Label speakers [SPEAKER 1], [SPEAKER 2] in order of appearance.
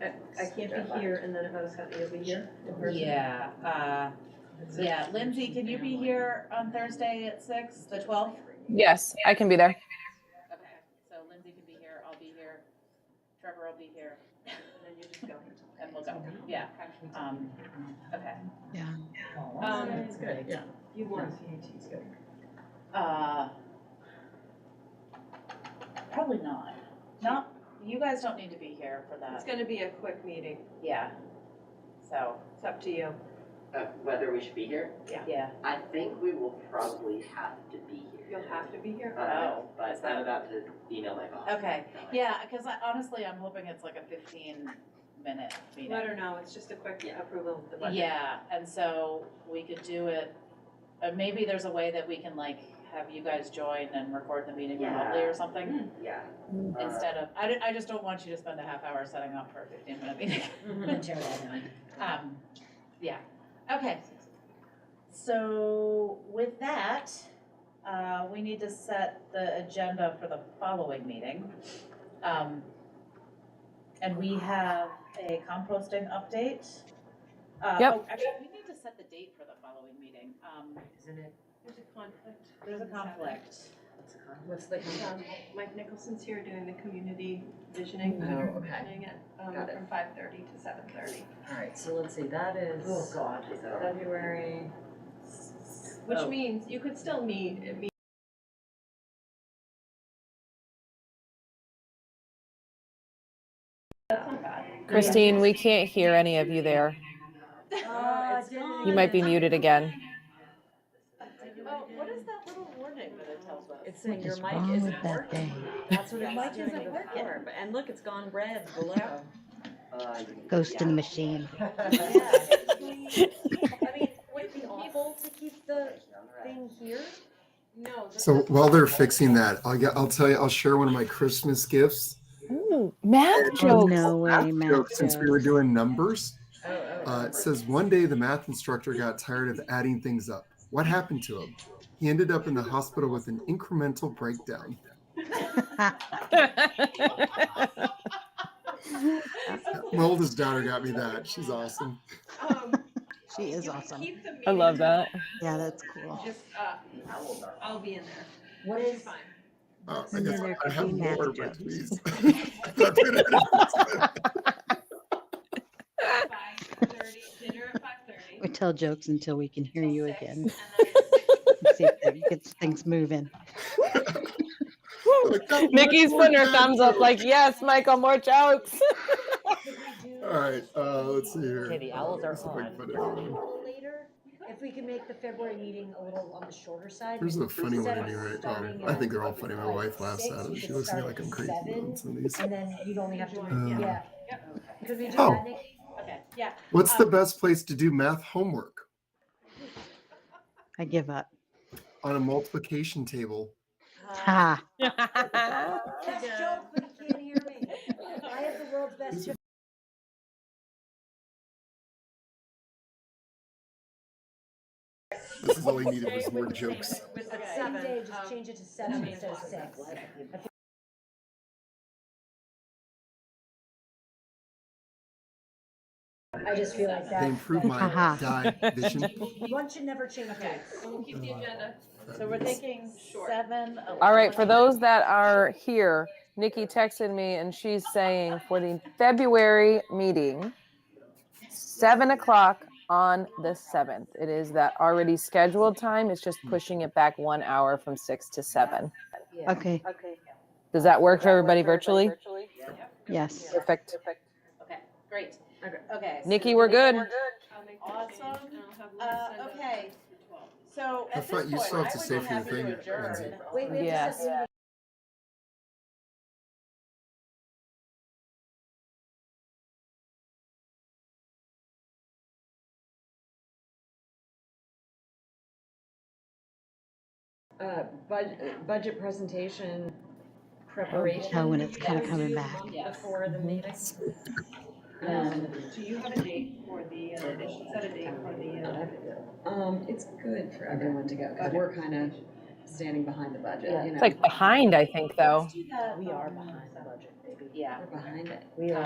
[SPEAKER 1] can't be here, and then if I was happy to be here in person.
[SPEAKER 2] Yeah, uh, yeah, Lindsay, can you be here on Thursday at six, the twelfth?
[SPEAKER 3] Yes, I can be there.
[SPEAKER 2] Okay, so Lindsay can be here, I'll be here, Trevor will be here,
[SPEAKER 1] And then you just go.
[SPEAKER 2] and we'll go, yeah, um, okay.
[SPEAKER 3] Yeah.
[SPEAKER 1] Oh,
[SPEAKER 2] Um,
[SPEAKER 1] It's good, yeah. You want. It's good.
[SPEAKER 2] Uh, Probably not. Not, you guys don't need to be here for
[SPEAKER 1] It's
[SPEAKER 2] that.
[SPEAKER 1] gonna be a quick meeting,
[SPEAKER 2] Yeah. So,
[SPEAKER 1] it's up to you.
[SPEAKER 4] of Uh, whether we should be here.
[SPEAKER 2] yeah.
[SPEAKER 4] I think we will probably have to be here.
[SPEAKER 1] You'll have to be here.
[SPEAKER 4] Uh,
[SPEAKER 2] Oh,
[SPEAKER 4] but
[SPEAKER 2] is that-
[SPEAKER 4] I'm about to email my boss.
[SPEAKER 2] Okay, yeah, because honestly, I'm hoping it's like a fifteen minute meeting.
[SPEAKER 1] Let her know, it's just a quick
[SPEAKER 4] Yeah.
[SPEAKER 1] approval of the budget.
[SPEAKER 2] Yeah, and so we could do it, uh, maybe there's a way that we can like have you guys join and record the meeting
[SPEAKER 4] Yeah.
[SPEAKER 2] remotely or something
[SPEAKER 4] Yeah.
[SPEAKER 3] Mm.
[SPEAKER 4] Uh,
[SPEAKER 2] instead of, I don't, I just don't want you to spend a half hour setting up for a fifteen minute meeting.
[SPEAKER 1] Mm-hmm.
[SPEAKER 2] Um, yeah, okay. So with that, uh, we need to set the agenda for the following meeting. Um, and we have a composting update. Uh,
[SPEAKER 3] Yep.
[SPEAKER 2] oh, Actually, we need to set the date for the following meeting. Um,
[SPEAKER 5] Isn't it?
[SPEAKER 1] There's a conflict.
[SPEAKER 2] there's a conflict.
[SPEAKER 5] What's the con- What's the? con-
[SPEAKER 1] Um, Mike Nicholson's here doing the community visioning.
[SPEAKER 5] Oh, okay,
[SPEAKER 1] Doing it, um,
[SPEAKER 5] Got it.
[SPEAKER 1] from five thirty to seven thirty.
[SPEAKER 5] all right, so let's see, that is
[SPEAKER 2] God.
[SPEAKER 4] is that-
[SPEAKER 5] February,
[SPEAKER 1] Which
[SPEAKER 2] Oh.
[SPEAKER 1] means you could still meet, it means That's not bad.
[SPEAKER 3] Christine, we can't hear any of you there.
[SPEAKER 5] Ah,
[SPEAKER 2] Oh, it's
[SPEAKER 3] You might be muted again.
[SPEAKER 2] Oh, what is that little warning that it tells us?
[SPEAKER 5] it's saying
[SPEAKER 6] What
[SPEAKER 5] your
[SPEAKER 6] is
[SPEAKER 5] mic
[SPEAKER 6] wrong with
[SPEAKER 5] isn't
[SPEAKER 6] that
[SPEAKER 5] working.
[SPEAKER 6] thing?
[SPEAKER 5] That's what
[SPEAKER 2] Your
[SPEAKER 5] it
[SPEAKER 2] mic
[SPEAKER 5] was doing
[SPEAKER 2] isn't working.
[SPEAKER 5] before, but- and look, it's gone red below.
[SPEAKER 4] Uh,
[SPEAKER 6] Ghost in
[SPEAKER 4] yeah.
[SPEAKER 6] the machine.
[SPEAKER 5] I mean, would it be able to keep the thing here?
[SPEAKER 1] No. the-
[SPEAKER 7] So while they're fixing that, I'll get, I'll tell you, I'll share one of my Christmas gifts.
[SPEAKER 3] Ooh, math
[SPEAKER 6] Oh,
[SPEAKER 3] jokes.
[SPEAKER 6] no way,
[SPEAKER 7] Math
[SPEAKER 6] Matt.
[SPEAKER 7] joke, Since we were
[SPEAKER 6] goes.
[SPEAKER 7] doing numbers,
[SPEAKER 5] Oh, oh.
[SPEAKER 7] uh, it says one day the math instructor got tired of adding things up. What happened to him? He ended up in the hospital with an incremental breakdown. My oldest daughter got me that. She's awesome.
[SPEAKER 1] um,
[SPEAKER 6] She is
[SPEAKER 1] you can
[SPEAKER 6] awesome.
[SPEAKER 1] keep the
[SPEAKER 3] I love
[SPEAKER 1] meeting,
[SPEAKER 3] that.
[SPEAKER 6] Yeah, that's cool.
[SPEAKER 1] Just, uh, I'll be in there.
[SPEAKER 5] What
[SPEAKER 1] It's
[SPEAKER 5] is,
[SPEAKER 1] fine.
[SPEAKER 7] Oh, I
[SPEAKER 6] And
[SPEAKER 7] guess
[SPEAKER 6] then there
[SPEAKER 7] I
[SPEAKER 6] could
[SPEAKER 7] have
[SPEAKER 6] be math
[SPEAKER 7] more, but
[SPEAKER 6] jokes.
[SPEAKER 7] please. I
[SPEAKER 1] Five thirty, dinner at five thirty.
[SPEAKER 6] We tell jokes until we can hear you again.
[SPEAKER 1] It's
[SPEAKER 6] See if that gets things moving.
[SPEAKER 7] got
[SPEAKER 3] Nikki's
[SPEAKER 7] one
[SPEAKER 3] putting her
[SPEAKER 7] more
[SPEAKER 3] thumbs up
[SPEAKER 7] joke.
[SPEAKER 3] like, yes, Michael, more jokes.
[SPEAKER 5] could we do?
[SPEAKER 7] All right, uh, let's see here.
[SPEAKER 5] Okay, the owls
[SPEAKER 7] Uh,
[SPEAKER 5] are
[SPEAKER 7] let's see if I can
[SPEAKER 5] on.
[SPEAKER 7] find it.
[SPEAKER 5] Later, if we can make the February meeting a little on the shorter side.
[SPEAKER 7] There's
[SPEAKER 5] maybe
[SPEAKER 7] a funny one
[SPEAKER 5] instead
[SPEAKER 7] in
[SPEAKER 5] of
[SPEAKER 7] here right
[SPEAKER 5] starting
[SPEAKER 7] now. I
[SPEAKER 5] at,
[SPEAKER 7] think they're all
[SPEAKER 5] like,
[SPEAKER 7] funny. My
[SPEAKER 5] five,
[SPEAKER 7] wife laughs
[SPEAKER 5] six,
[SPEAKER 7] at
[SPEAKER 5] you
[SPEAKER 7] it. She
[SPEAKER 5] could
[SPEAKER 7] looks at me
[SPEAKER 5] start
[SPEAKER 7] like
[SPEAKER 5] at
[SPEAKER 7] I'm crazy
[SPEAKER 5] seven,
[SPEAKER 7] on some of these.
[SPEAKER 5] And then you'd only have to,
[SPEAKER 7] Um,
[SPEAKER 5] yeah, could we do
[SPEAKER 7] Oh.
[SPEAKER 5] that, Nick?
[SPEAKER 2] Okay, yeah,
[SPEAKER 7] What's the best place to do math homework?
[SPEAKER 6] I give up.
[SPEAKER 7] On a multiplication table.
[SPEAKER 8] Uh,
[SPEAKER 6] Ha.
[SPEAKER 5] Best joke, but you can't hear me. I have the world's best joke.
[SPEAKER 7] This is all he needed was more jokes.
[SPEAKER 1] With the
[SPEAKER 5] Same
[SPEAKER 1] seven.
[SPEAKER 5] day, just
[SPEAKER 1] um,
[SPEAKER 5] change it to seven instead of six. I just feel like
[SPEAKER 7] They
[SPEAKER 5] that,
[SPEAKER 7] improved my
[SPEAKER 6] Haha.
[SPEAKER 7] die vision.
[SPEAKER 5] one should never change
[SPEAKER 2] Okay.
[SPEAKER 5] dates.
[SPEAKER 1] We'll keep the agenda.
[SPEAKER 2] so we're thinking
[SPEAKER 1] Short.
[SPEAKER 2] seven.
[SPEAKER 3] All right, for those that are here, Nikki texted me and she's saying for the February meeting, seven o'clock on the seventh. It is that already scheduled time. It's just pushing it back one hour from six to seven.
[SPEAKER 6] Okay,
[SPEAKER 3] Does that work for everybody virtually?
[SPEAKER 6] yes.
[SPEAKER 3] Perfect.
[SPEAKER 2] Okay, great.
[SPEAKER 5] Okay.
[SPEAKER 2] Okay. so
[SPEAKER 3] Nikki, we're good.
[SPEAKER 1] I'll make
[SPEAKER 2] Awesome.
[SPEAKER 1] the change, and I'll have Lisa send
[SPEAKER 2] Uh,
[SPEAKER 1] it.
[SPEAKER 2] okay, so
[SPEAKER 7] I
[SPEAKER 2] at this
[SPEAKER 7] thought
[SPEAKER 2] point,
[SPEAKER 7] you still
[SPEAKER 2] I
[SPEAKER 7] have to
[SPEAKER 2] would
[SPEAKER 7] say
[SPEAKER 2] be
[SPEAKER 7] for your
[SPEAKER 2] happy to
[SPEAKER 7] thing,
[SPEAKER 2] adjourn.
[SPEAKER 7] Lindsay.
[SPEAKER 5] Wait, we have to
[SPEAKER 3] Yes.
[SPEAKER 5] set the Uh, budget, budget presentation Oh, preparation.
[SPEAKER 6] tell when it's kinda
[SPEAKER 5] that we
[SPEAKER 6] coming
[SPEAKER 5] do a
[SPEAKER 6] back.
[SPEAKER 5] month
[SPEAKER 2] Yes.
[SPEAKER 5] Before the meeting. Um,
[SPEAKER 1] Do you have a date for the, uh, they should set a date for the, uh,
[SPEAKER 8] Um, it's good for everyone to go, because we're kind of standing behind the budget, you know.
[SPEAKER 3] It's like behind, I think, though.
[SPEAKER 2] Let's do that,
[SPEAKER 5] We are
[SPEAKER 2] um,
[SPEAKER 5] behind the budget, maybe.
[SPEAKER 2] Yeah.
[SPEAKER 8] We're behind it.
[SPEAKER 5] We are